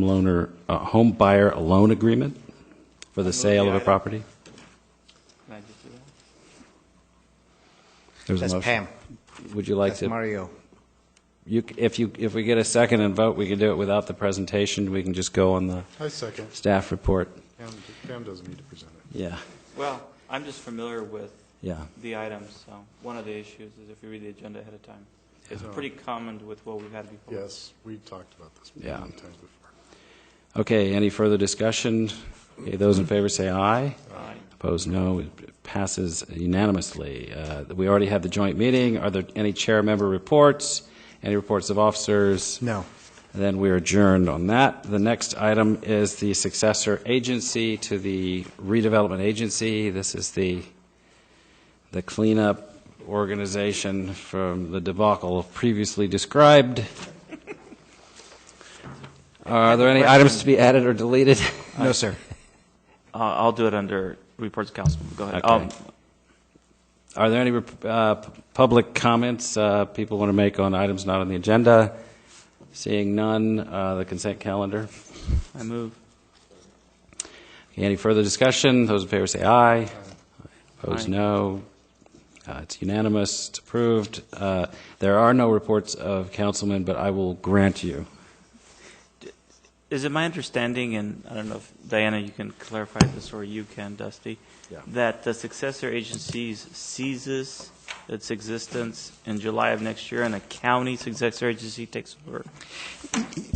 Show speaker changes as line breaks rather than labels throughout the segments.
homeloaner, uh, home buyer loan agreement for the sale of a
item.
property?
Can I just do that?
There's a
That's
motion.
Pam.
Would you like
That's
to,
Mario.
you, c- if you, if we get a second and vote, we can do it without the presentation. We can just go on the
I second.
staff report.
Pam, Pam doesn't need to present it.
Yeah,
Well, I'm just familiar with
yeah.
the items, so one of the issues is if you read the agenda ahead of time, it's
Yeah.
pretty common with what we've had before.
Yes, we talked about this many
Yeah.
times before.
Okay, any further discussion? Okay, those in favor say aye.
Aye.
Opposed, no. It passes unanimously. Uh, We already had the joint meeting. Are there any chair member reports? Any reports of officers?
No.
Then we are adjourned on that. The next item is the successor agency to the redevelopment agency. This is the, the cleanup organization from the debacle previously described. Are there any items to be added or deleted?
No, sir.
Uh, I'll do it under reports council. Go ahead.
Okay.
Um,
Are there any uh, p- public comments uh, people want to make on items not on the agenda? Seeing none, uh, the consent calendar.
I move.
Any further discussion? Those in favor say aye. Opposed,
Aye.
no. Uh, It's unanimous, it's approved. Uh, There are no reports of councilmen, but I will grant you.
Is it my understanding, and I don't know if Diana, you can clarify this, or you can, Dusty,
Yeah.
that the successor agencies ceases its existence in July of next year, and a county successor agency takes over?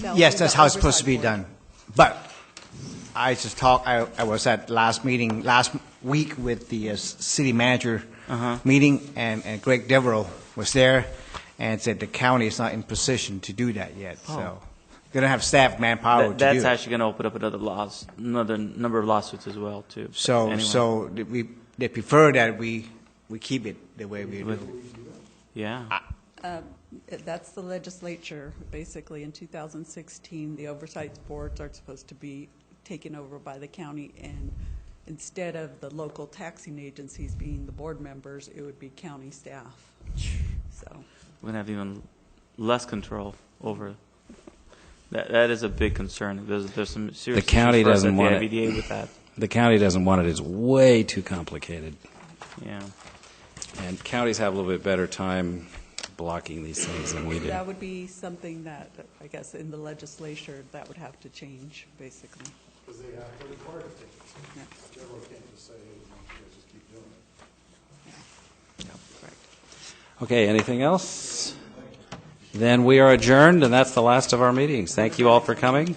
No,
Yes,
the
that's how it's supposed to
oversight
be
board.
done. But I just talked, I, I was at last meeting, last week with the uh, s- city manager
Uh-huh.
meeting, and, and Greg Devereaux was there and said the county is not in position to do that yet, so. They don't have staff manpower to
Oh. That-
do
That's
it.
actually going to open up another laws, another number of lawsuits as well, too. But
So,
anyway.
so th- we, they prefer that we, we keep it the way we do.
Yeah.
That's the legislature, basically, in 2016, the oversight boards are supposed to be taken over by the county, and instead of the local taxing agencies being the board members, it would be county staff. So,
we're going to have even less control over. That that is a big concern. There's there's some serious. issues
county
for us
doesn't
at
want it.
the IBDA with that.
The county doesn't want it, it's way too complicated.
Yeah.
And counties have a little bit better time blocking these things than we do.
that would be something that, I guess, in the legislature, that would have to change, basically. Because they have to report it. Correct.
Okay, anything else? Then we are adjourned, and that's the last of our meetings. Thank you all for coming.